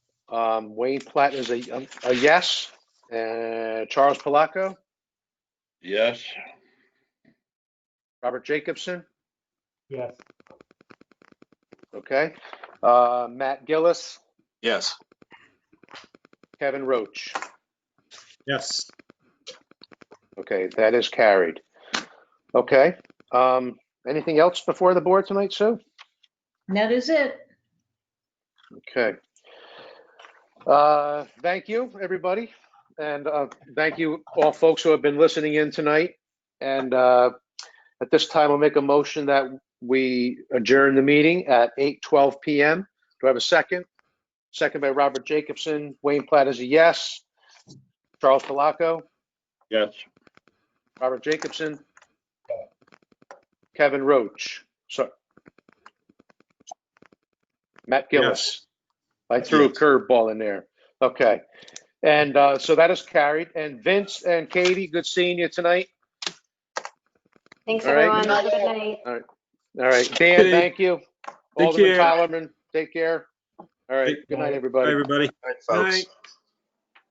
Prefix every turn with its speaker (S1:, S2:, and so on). S1: Um, Wayne Platt is a, um, a yes. Uh, Charles Palaco,
S2: Yes.
S1: Robert Jacobson,
S3: Yes.
S1: okay. Uh, Matt Gillis,
S4: Yes.
S1: Kevin Roach.
S3: Yes.
S1: Okay, that is carried. Okay, um, anything else before the board tonight, Sue?
S5: That is it.
S1: Okay. Uh, Thank you, everybody, and uh, thank you all folks who have been listening in tonight. And uh, at this time, I'll make a motion that we adjourn the meeting at 8:12 PM. Do I have a second? Second by Robert Jacobson. Wayne Platt is a yes. Charles Palaco,
S2: Yes.
S1: Robert Jacobson, Kevin Roach, so. Matt Gillis. I threw a
S4: Yes.
S1: curveball in there. Okay. And uh, so that is carried. And Vince and Katie, good seeing you tonight.
S6: Thanks,
S1: All right.
S6: everyone. Have a good night.
S1: All right. Dan,
S3: Hey.
S1: thank you.
S3: Take
S1: Alderman
S3: care.
S1: Tylerman, take care. All right.
S3: Take
S1: Good
S3: care.
S1: night,
S3: Bye,
S1: everybody.
S3: everybody.
S4: All right, folks.
S3: Night.